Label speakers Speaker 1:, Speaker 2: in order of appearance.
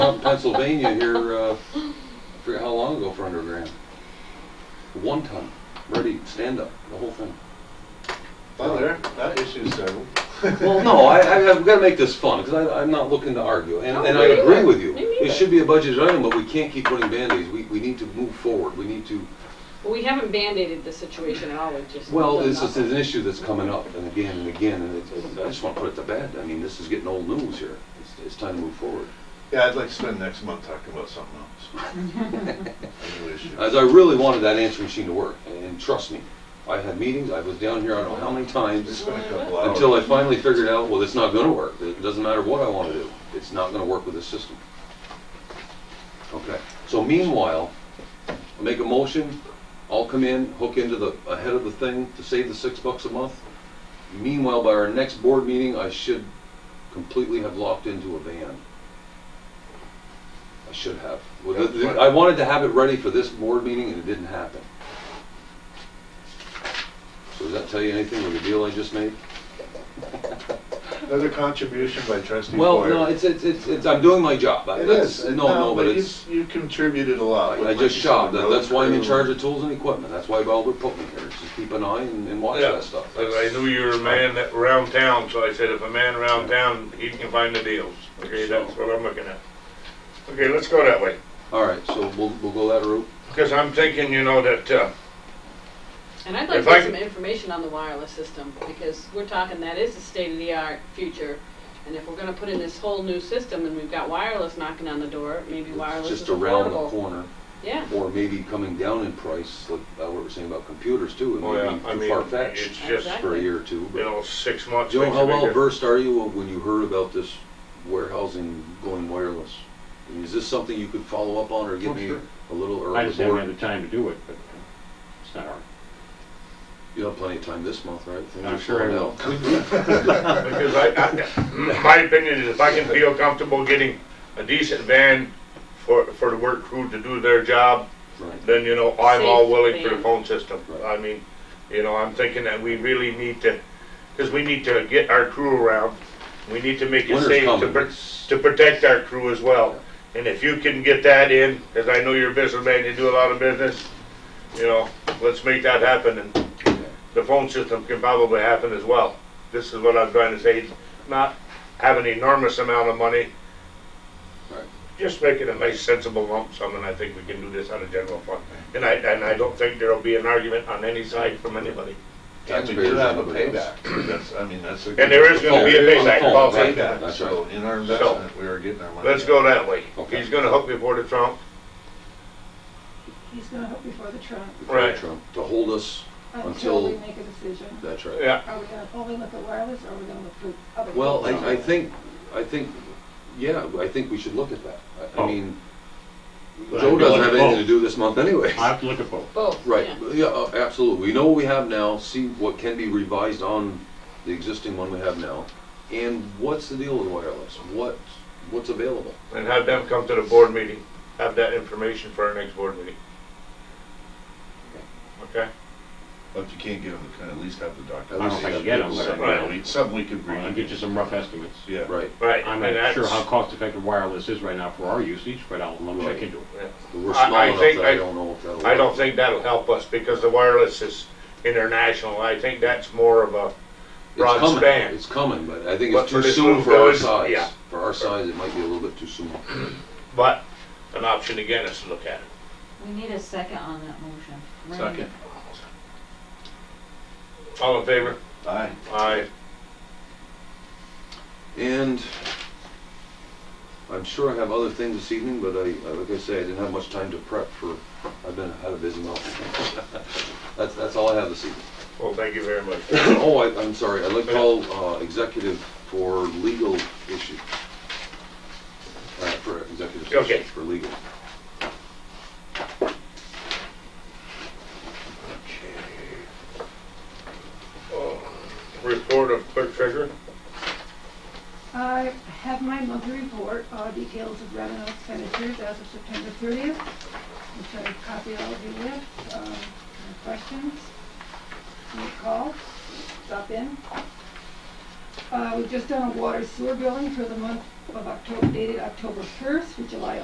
Speaker 1: South Pennsylvania here, uh, I forget how long ago for under a grand. One ton, ready, stand up, the whole thing.
Speaker 2: Well, there, that issue's settled.
Speaker 1: Well, no, I, I, I've gotta make this fun, because I, I'm not looking to argue, and, and I
Speaker 3: No, me
Speaker 1: agree
Speaker 3: neither.
Speaker 1: with you.
Speaker 3: Me
Speaker 1: It
Speaker 3: neither.
Speaker 1: should be a budget item, but we can't keep putting Band-Aids, we, we need to move forward, we need to,
Speaker 3: Well, we haven't band-aided the situation at all, we've just.
Speaker 1: well,
Speaker 3: done
Speaker 1: this is
Speaker 3: nothing.
Speaker 1: an issue that's coming up, and again, and again, and it's, it's- I just wanna put it to bed, I mean, this is getting old news here. It's, it's time to move forward.
Speaker 2: Yeah, I'd like to spend next month talking about something else. A new issue.
Speaker 1: As I really wanted that answering machine to work, and trust me, I had meetings, I was down here, I don't know how many
Speaker 2: It's
Speaker 1: times,
Speaker 2: been a couple hours.
Speaker 1: until I finally figured out, well, it's not gonna work. It doesn't matter what I wanna do, it's not gonna work with this system. Okay, so meanwhile, I make a motion, I'll come in, hook into the, ahead of the thing to save the six bucks a month. Meanwhile, by our next board meeting, I should completely have locked into a van. I should have. Well, the- the- I wanted to have it ready for this board meeting and it didn't happen. So does that tell you anything with the deal I just made?
Speaker 2: Another contribution by trustee
Speaker 1: Well, no,
Speaker 2: Boyer.
Speaker 1: it's, it's, it's, it's- I'm doing my job. I-
Speaker 2: It
Speaker 1: that's-
Speaker 2: is.
Speaker 1: No, no, but
Speaker 2: you-
Speaker 1: it's,
Speaker 2: You contributed a lot.
Speaker 1: I I
Speaker 2: Like
Speaker 1: just
Speaker 2: you said,
Speaker 1: shop.
Speaker 2: the
Speaker 1: That- That's why I'm in
Speaker 2: road
Speaker 1: charge
Speaker 2: crew.
Speaker 1: of tools and equipment. That's why Baldur put me here, is to keep an eye and, and watch
Speaker 4: Yeah.
Speaker 1: that stuff.
Speaker 4: And I knew you were a man that around town, so I said, if a man around town, he can find the deals. Okay, that's what I'm looking at. Okay, let's go that way,
Speaker 1: All right, so we'll, we'll go that route.
Speaker 4: because I'm thinking, you know, that, uh,
Speaker 3: And I'd like
Speaker 4: If
Speaker 3: to
Speaker 4: I
Speaker 3: get
Speaker 4: could-
Speaker 3: some information on the wireless system, because we're talking, that is the state-of-the-art future. And if we're gonna put in this whole new system, and we've got wireless knocking on the door, maybe
Speaker 1: It's
Speaker 3: wireless is
Speaker 1: just around the
Speaker 3: affordable.
Speaker 1: corner,
Speaker 3: Yeah,
Speaker 1: or maybe coming down in price, like uh, what we're saying about computers too,
Speaker 4: Oh, yeah.
Speaker 1: and
Speaker 4: I
Speaker 1: maybe too
Speaker 4: mean,
Speaker 1: far fetched
Speaker 4: it's just,
Speaker 1: for a year or two. but-
Speaker 4: you know, six months.
Speaker 1: Joe,
Speaker 4: makes a
Speaker 1: how
Speaker 4: big
Speaker 1: well
Speaker 4: difference.
Speaker 1: versed are you when you heard about this warehousing going wireless? I mean, Is this something you could follow up on or give
Speaker 5: Oh,
Speaker 1: me
Speaker 5: sure.
Speaker 1: a little, or
Speaker 5: I
Speaker 1: the
Speaker 5: just haven't
Speaker 1: board?
Speaker 5: had the time to do it, but it's not hard.
Speaker 1: You have plenty of time this month, right? Things
Speaker 5: I'm
Speaker 1: are
Speaker 5: sure I
Speaker 1: slowing
Speaker 5: will.
Speaker 1: down.
Speaker 4: Because I, I, my opinion is if I can feel comfortable getting a decent van for, for the work crew to do their job,
Speaker 1: Right.
Speaker 4: then, you know, I'm all willing for the
Speaker 3: Safe
Speaker 4: phone system.
Speaker 1: Right.
Speaker 4: I mean, you know, I'm thinking that we really need to, because we need to get our crew around. We need to make it
Speaker 1: Winter's
Speaker 4: safe to,
Speaker 1: coming.
Speaker 4: pr- to protect our crew as well. And if you can get that in, because I know you're a businessman, you do a lot of business, you know, let's make that happen and the phone system can probably happen as well. This is what I'm trying to say, not have an enormous amount of money.
Speaker 1: Right.
Speaker 4: Just make it a nice sensible lump sum, and I think we can do this out of general fund. And I, and I don't think there'll be an argument on any side from anybody.
Speaker 2: And we do have a payback. That's, I mean, that's a.
Speaker 4: And there is gonna be a
Speaker 1: Oh, yeah.
Speaker 4: payback
Speaker 1: Oh,
Speaker 4: policy.
Speaker 1: right.
Speaker 2: Payback,
Speaker 1: That's
Speaker 2: so in our investment, we are getting our money.
Speaker 4: Let's
Speaker 2: back.
Speaker 4: go that way.
Speaker 1: Okay.
Speaker 4: He's gonna hook me for the trunk.
Speaker 6: He's gonna help before the Trump,
Speaker 4: Right.
Speaker 1: Trump, To hold us, Until-
Speaker 6: until we make a decision.
Speaker 1: that's right.
Speaker 4: Yeah,
Speaker 6: Are we gonna only look at wireless, or are we gonna look at other?
Speaker 1: Well,
Speaker 6: things?
Speaker 1: I, I think, I think, yeah, I think we should look at that. I- I
Speaker 5: Oh.
Speaker 1: mean,
Speaker 5: But
Speaker 1: Joe
Speaker 5: I'd be
Speaker 1: doesn't
Speaker 5: like,
Speaker 1: have anything to
Speaker 5: oh.
Speaker 1: do this month anyway.
Speaker 5: I have to look at both.
Speaker 3: both,
Speaker 1: Right,
Speaker 3: yeah.
Speaker 1: yeah, uh, absolutely. We know what we have now, see what can be revised on the existing one we have now. And what's the deal with wireless? What, what's available?
Speaker 4: and have them come to the board meeting, have that information for our next board meeting. Okay?
Speaker 2: But if you can't get them, we can at least have the
Speaker 1: At
Speaker 2: document.
Speaker 1: least
Speaker 5: I don't think I'll get them, but
Speaker 2: Something
Speaker 5: I'll
Speaker 4: Right.
Speaker 2: we- Something we could
Speaker 5: I'll
Speaker 2: read.
Speaker 5: get you some rough estimates.
Speaker 2: Yeah.
Speaker 1: Right,
Speaker 4: Right.
Speaker 5: I'm
Speaker 4: and
Speaker 5: not sure
Speaker 4: that's-
Speaker 5: how cost-effective wireless is right now for our usage, but I'll, I'll check into it.
Speaker 4: Yeah.
Speaker 1: we're
Speaker 4: I-
Speaker 1: small
Speaker 4: I
Speaker 1: enough
Speaker 4: think
Speaker 1: that I
Speaker 4: I-
Speaker 1: don't know if that'll.
Speaker 4: I don't
Speaker 1: work.
Speaker 4: think that'll help us because the wireless is international. I think that's more of a,
Speaker 1: It's
Speaker 4: broad
Speaker 1: coming.
Speaker 4: span.
Speaker 1: It's coming, but I think
Speaker 4: But
Speaker 1: it's
Speaker 4: for
Speaker 1: too
Speaker 4: this
Speaker 1: soon
Speaker 4: little
Speaker 1: for our
Speaker 4: village, yeah.
Speaker 1: size. For our size, it might be a little bit too soon.
Speaker 4: but an option again is to look at it.
Speaker 7: We need a second on that motion. Randy.
Speaker 2: Second.
Speaker 4: All in favor?
Speaker 2: Aye.
Speaker 4: Aye.
Speaker 1: And I'm sure I have other things this evening, but I, I- like I say, I didn't have much time to prep for, I've been, had a busy month. That's, that's all I have this evening.
Speaker 4: Well, thank you very much.
Speaker 1: Oh, I, I'm sorry, I'd like to call, uh, executive for legal issue. Uh, for executive
Speaker 4: Okay.
Speaker 1: session, for legal.
Speaker 4: Report of clerk treasurer.
Speaker 6: I have my monthly report, uh, details of revenue expenditures as of September thirtieth, which I copy all of you with, um, any questions, any calls, stop in. Uh, we've just done a water sewer billing for the month of October, dated October 1st through July